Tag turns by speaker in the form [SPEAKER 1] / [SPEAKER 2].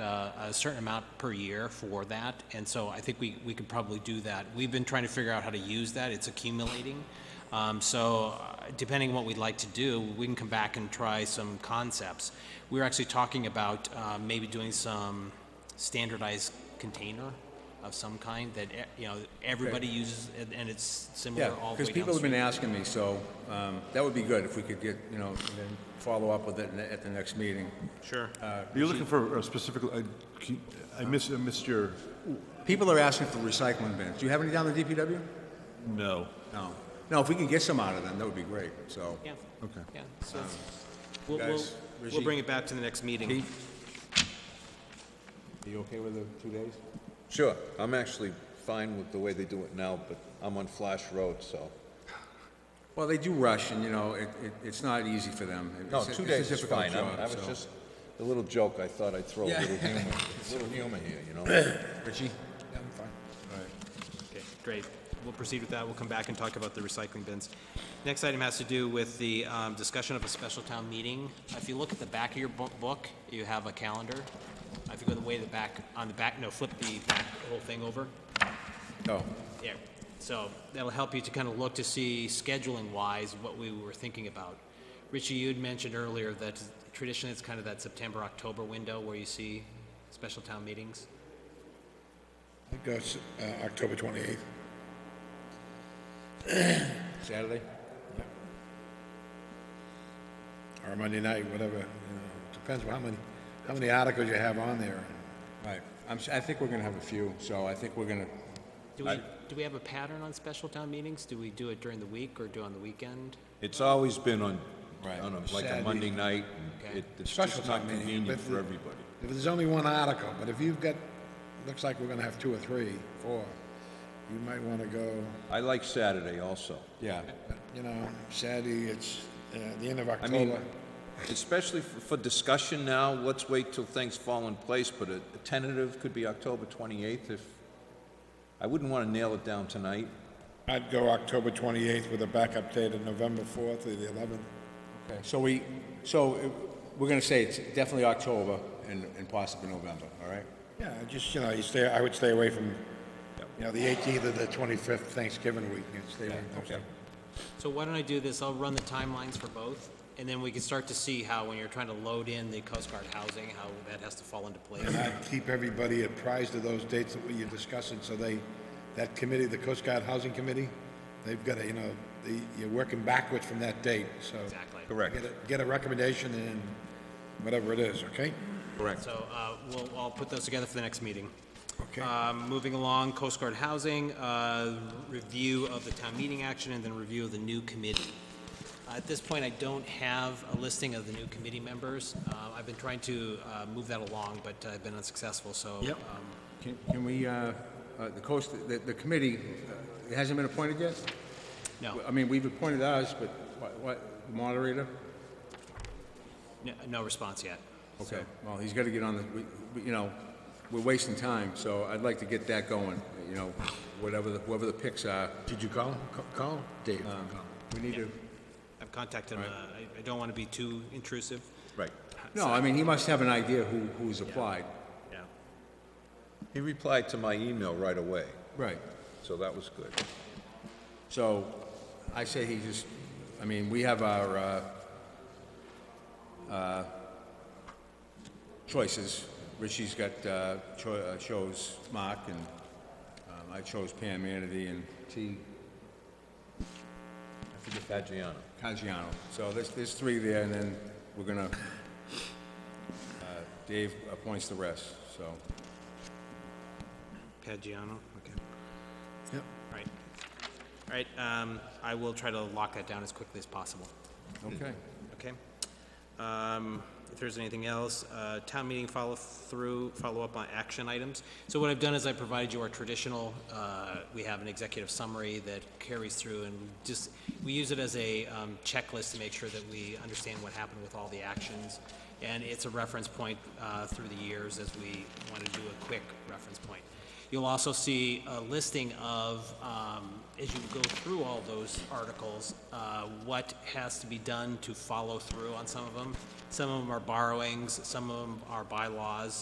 [SPEAKER 1] uh, a certain amount per year for that, and so I think we, we could probably do that. We've been trying to figure out how to use that, it's accumulating. Um, So uh, depending on what we'd like to do, we can come back and try some concepts. We were actually talking about uh, maybe doing some standardized container of some kind that, eh, you know, everybody uses, and- and it's
[SPEAKER 2] Yeah,
[SPEAKER 1] similar all the way down.
[SPEAKER 2] because people have been asking me, so um, that would be good if we could get, you know, and then follow up with it in- at the next meeting.
[SPEAKER 1] Sure.
[SPEAKER 2] Uh,
[SPEAKER 3] You're looking for a specific, I keep- I missed, I missed your,
[SPEAKER 2] People are asking for recycling bins. Do you have any down the DPW?
[SPEAKER 3] no.
[SPEAKER 2] No. No, if we could get some out of them, that would be great, so.
[SPEAKER 1] Yeah.
[SPEAKER 3] Okay.
[SPEAKER 1] Yeah, so, we'll, we'll,
[SPEAKER 2] Um, guys,
[SPEAKER 1] we'll
[SPEAKER 2] Rajiv.
[SPEAKER 1] bring it back to the next meeting.
[SPEAKER 2] Are you okay with the two days?
[SPEAKER 4] Sure, I'm actually fine with the way they do it now, but I'm on Flash Road, so.
[SPEAKER 2] Well, they do rush, and, you know, it, it- it's not easy for them. It-
[SPEAKER 4] No,
[SPEAKER 2] it's a-
[SPEAKER 4] two
[SPEAKER 2] it's a
[SPEAKER 4] days is
[SPEAKER 2] difficult
[SPEAKER 4] fine, I
[SPEAKER 2] job,
[SPEAKER 4] I was
[SPEAKER 2] so.
[SPEAKER 4] just, a little joke, I thought I'd throw a
[SPEAKER 2] Yeah.
[SPEAKER 4] little humor, a little humor here, you know?
[SPEAKER 2] Richie?
[SPEAKER 1] Okay, great. We'll proceed with that. We'll come back and talk about the recycling bins. Next item has to do with the um, discussion of a special town meeting. If you look at the back of your bo- book, you have a calendar. If you go the way the back, on the back, no, flip the back whole thing over.
[SPEAKER 2] Oh,
[SPEAKER 1] Yeah, so that'll help you to kind of look to see scheduling-wise what we were thinking about. Richie, you had mentioned earlier that traditionally it's kind of that September, October window where you see special town meetings.
[SPEAKER 5] I think that's uh, October 28th.
[SPEAKER 2] Saturday?
[SPEAKER 5] Or Monday night, whatever, you know, depends on how many, how many articles you have on there.
[SPEAKER 2] Right. I'm, s- I think we're gonna have a few, so I think we're gonna,
[SPEAKER 1] Do we, do we have a pattern on special town meetings? Do we do it during the week or do it on the weekend?
[SPEAKER 4] It's always been on,
[SPEAKER 2] Right.
[SPEAKER 4] on a- like a
[SPEAKER 5] Saturday.
[SPEAKER 4] Monday night, and
[SPEAKER 1] Okay.
[SPEAKER 4] it- it's
[SPEAKER 5] Special
[SPEAKER 4] just not
[SPEAKER 5] town meeting,
[SPEAKER 4] convenient
[SPEAKER 5] but
[SPEAKER 4] for
[SPEAKER 5] the-
[SPEAKER 4] everybody.
[SPEAKER 5] If there's only one article, but if you've got, looks like we're gonna have two or three, four, you might wanna go,
[SPEAKER 4] I like Saturday also.
[SPEAKER 2] yeah.
[SPEAKER 5] you know, Saturday, it's uh, the end of
[SPEAKER 4] I mean,
[SPEAKER 5] October.
[SPEAKER 4] especially for for discussion now, let's wait till things fall in place, but a a tentative could be October 28th if, I wouldn't want to nail it down tonight.
[SPEAKER 5] I'd go October 28th with a backup date of November 4th or the 11th.
[SPEAKER 2] Okay, So we, so uh, we're gonna say it's definitely October and and possibly November, all right?
[SPEAKER 5] Yeah, I just, you know, you stay, I would stay away from, you know, the 18th or the 25th Thanksgiving week, you'd stay away from those.
[SPEAKER 1] So why don't I do this? I'll run the timelines for both, and then we can start to see how, when you're trying to load in the Coast Guard housing, how that has to fall into place.
[SPEAKER 5] I keep everybody apprised of those dates that you're discussing, so they, that committee, the Coast Guard Housing Committee, they've got to, you know, the, you're working backwards from that date, so.
[SPEAKER 1] Exactly.
[SPEAKER 4] Correct.
[SPEAKER 5] Get a, get a recommendation and then whatever it is, okay?
[SPEAKER 4] Correct.
[SPEAKER 1] So, uh, we'll, I'll put those together for the next meeting.
[SPEAKER 5] Okay.
[SPEAKER 1] Um, moving along, Coast Guard housing, uh, review of the town meeting action, and then review of the new committee. Uh, At this point, I don't have a listing of the new committee members. Uh, I've been trying to, uh, move that along, but I've been unsuccessful, so.
[SPEAKER 5] Yep.
[SPEAKER 1] um,
[SPEAKER 2] Can can we, uh, uh, the coast, the the committee, uh, it hasn't been appointed yet?
[SPEAKER 1] No,
[SPEAKER 5] uh,
[SPEAKER 2] I mean, we've appointed ours, but what- what, the moderator?
[SPEAKER 1] n- no response yet.
[SPEAKER 2] Okay, well, he's got to get on the, we- we- you know, we're wasting time, so I'd like to get that going, you know, whatever, the- whoever the picks are. Um,
[SPEAKER 5] Did you call? Ca- Call Dave.
[SPEAKER 2] We need to,
[SPEAKER 1] I've contacted him. Uh, I, I don't want to be too intrusive.
[SPEAKER 4] Right.
[SPEAKER 2] no, I mean, he must have an idea who, who's applied.
[SPEAKER 1] Yeah.
[SPEAKER 4] He replied to my email right away,
[SPEAKER 2] Right.
[SPEAKER 4] so that was good.
[SPEAKER 2] So I say he just, I mean, we have our uh, uh, choices. Richie's got, uh, cho- uh, chose Mark, and um, I chose Pam Anady and T.
[SPEAKER 4] Adriano.
[SPEAKER 2] Caggiano. So there's, there's three there, and then we're gonna, uh, Dave appoints the rest, so.
[SPEAKER 1] Pagiano, okay.
[SPEAKER 5] Yep.
[SPEAKER 1] All right. All right, um, I will try to lock that down as quickly as possible,
[SPEAKER 2] Okay.
[SPEAKER 1] okay? Um, if there's anything else, uh, town meeting follow-through, follow-up on action items. So what I've done is I provided you our traditional, uh, we have an executive summary that carries through and just, we use it as a, um, checklist to make sure that we understand what happened with all the actions. And it's a reference point, uh, through the years as we want to do a quick reference point. You'll also see a listing of, um, as you go through all those articles, uh, what has to be done to follow through on some of them. Some of them are borrowings, some of them are bylaws,